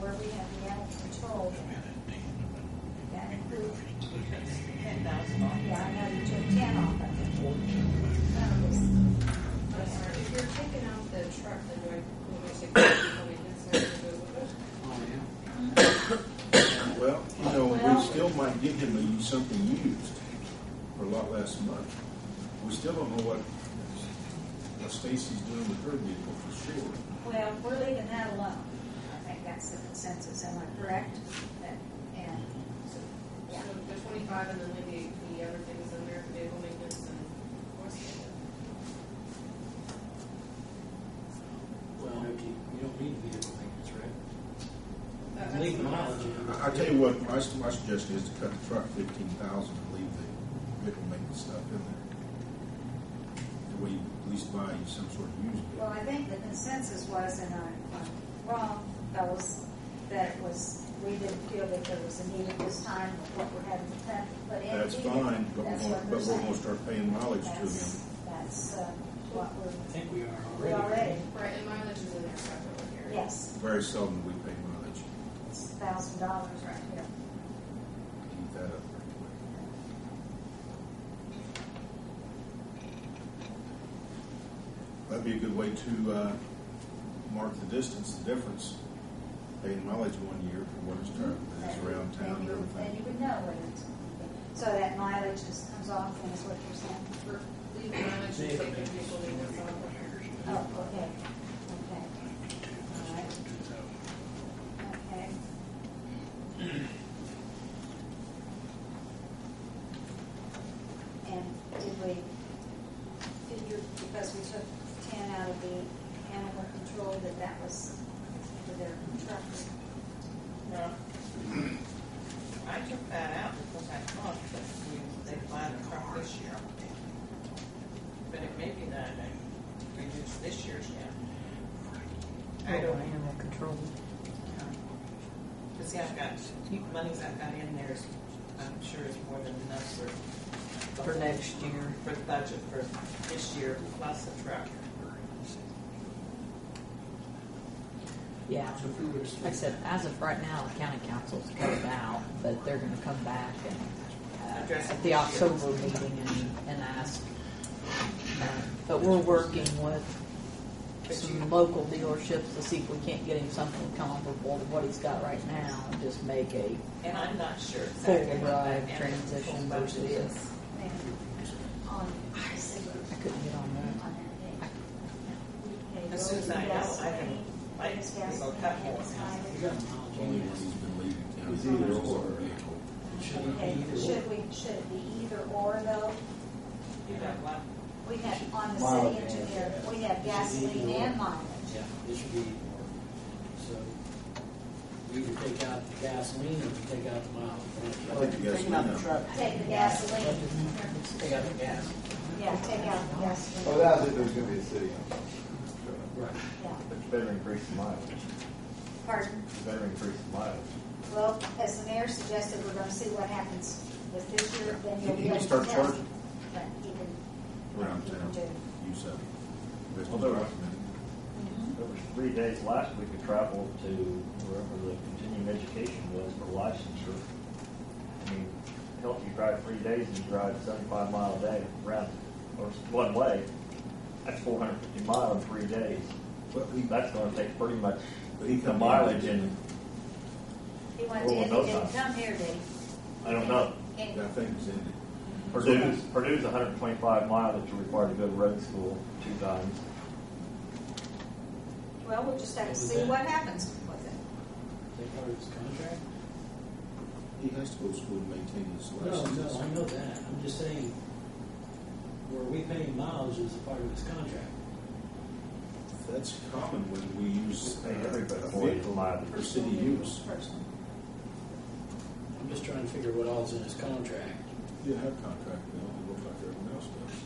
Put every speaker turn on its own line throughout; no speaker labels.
where we have the animal control, that includes.
Ten thousand dollars.
Yeah, I know you took ten off of it. Um,
If you're taking out the truck, then do I, will we say, probably necessary to do it?
Well, you know,
Well-
we still might get him a- something used for a lot less money. We still don't know what what Stacy's doing with her vehicle for sure.
Well, we're leaving that alone. I think that's the consensus, am I correct? That- And,
So the twenty-five and then maybe the other things in there, vehicle maintenance and horse.
Well, Nikki, you don't need vehicle maintenance, right?
That-
Uh,
that's
Leave
what I'm
mileage.
asking.
in.
I, I tell you what, my, my suggestion is to cut the truck fifteen thousand and leave the vehicle maintenance stuff in there. That way you at least buy you some sort of used
well,
vehicle.
I think the consensus was, and I'm I'm wrong, fellas, that it was, we didn't feel that there was a need at this time with what we're having to cut, but in.
That's fine, but we're
That's
gonna,
what we're
but we're gonna
saying.
start paying mileage to
That's,
him.
that's uh, what
I
we're,
think we are
we
already.
already,
Right, and mileage is in there, so that's over here.
yes,
Very seldom we pay mileage.
it's thousand dollars right here.
Keep that up pretty quick. That'd be a good way to, uh, mark the distance, the difference, paying mileage one year for what it's driving, it's around town
And
and
you, and you
everything.
would know what it's, so that mileage just comes off then is what you're saying?
For leave mileage and
Vehicle
take the
maintenance.
vehicle maintenance off of here.
Oh, okay, okay. All right. Okay. And did we figure, because we took ten out of the animal control, that that was for their trucks?
No. I took that out because I thought that we, they planned a crop this year. But it may be that I reduced this year's yet. I don't know.
Animal control.
But see, I've got, monies I've got in there is, I'm sure is more than enough for.
For next year.
For the budget for this year plus the truck.
Yeah.
So if we were to.
Like I said, as of right now, the county council's cut it out, but they're gonna come back and, uh,
Address it
at the
this year.
October meeting and, and ask. Uh, But we're working with
But you-
some local dealerships to see if we can't get him something comparable to what he's got right now and just make a
And I'm not sure
full
exactly what that
ride
annual
transition
budget
versus this.
Maybe on, I see,
I couldn't get on that.
on that day.
As soon as I know, I can, like, go cut more.
You got mileage
Only
in
when
there.
he's been leaving town.
It's either or.
Vehicle.
Shouldn't
Okay,
be either way.
should we, should it be either or though?
You know, what?
We have, on the
Mileage
city engineer,
and-
we have gasoline and mileage.
Yeah, it should be either or. So we either take out the gasoline or we take out the mileage.
I think the
Taking out the
gasoline.
truck.
Take the gasoline,
Take out the gas.
yeah, take out the
Oh,
Well,
gasoline,
that's if there's gonna be a city on
Right.
yeah.
But you better increase the mileage.
Pardon?
You better increase the mileage.
Well, as the mayor suggested, we're gonna see what happens with this year, then you'll
He-
be
he
able
can
to tell.
start charging.
But he can-
Around
he can
town,
do.
use of. That's
Although-
documented.
There was three days last week we traveled to wherever the continuing education was for licensure. I mean, help you drive three days and you drive seventy-five mile a day round, or one way. That's four hundred fifty mile in three days.
But we,
That's gonna take pretty much
But he
the
come-
mileage and,
He went
Well,
to,
no
he didn't
time.
come here, did he?
I don't know.
And-
that thing was ended.
Purdue's, Purdue's hundred and twenty-five mile that you're required to go to road school two times.
Well, we'll just have to
What was
see
that?
what happens with it.
Take out his contract?
He has to go to school to maintain his
No,
license.
no, I know that. I'm just saying, where we pay mileage is a part of his contract.
That's common when we use uh,
Hey, everybody
a
avoids
vehicle
liability.
for city use.
Person.
I'm just trying to figure what all's in his contract.
You have contract, you know, it looks like everyone else does.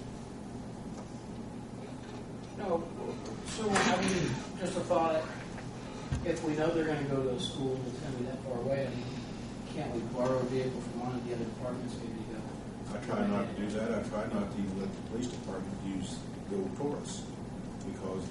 No, so, I mean, just a thought, if we know they're gonna go to a school that's gonna be that far away, I mean, can't we borrow a vehicle from one of the other departments maybe to go?
I try not to do that, I try not to even let the police department use the old Taurus, because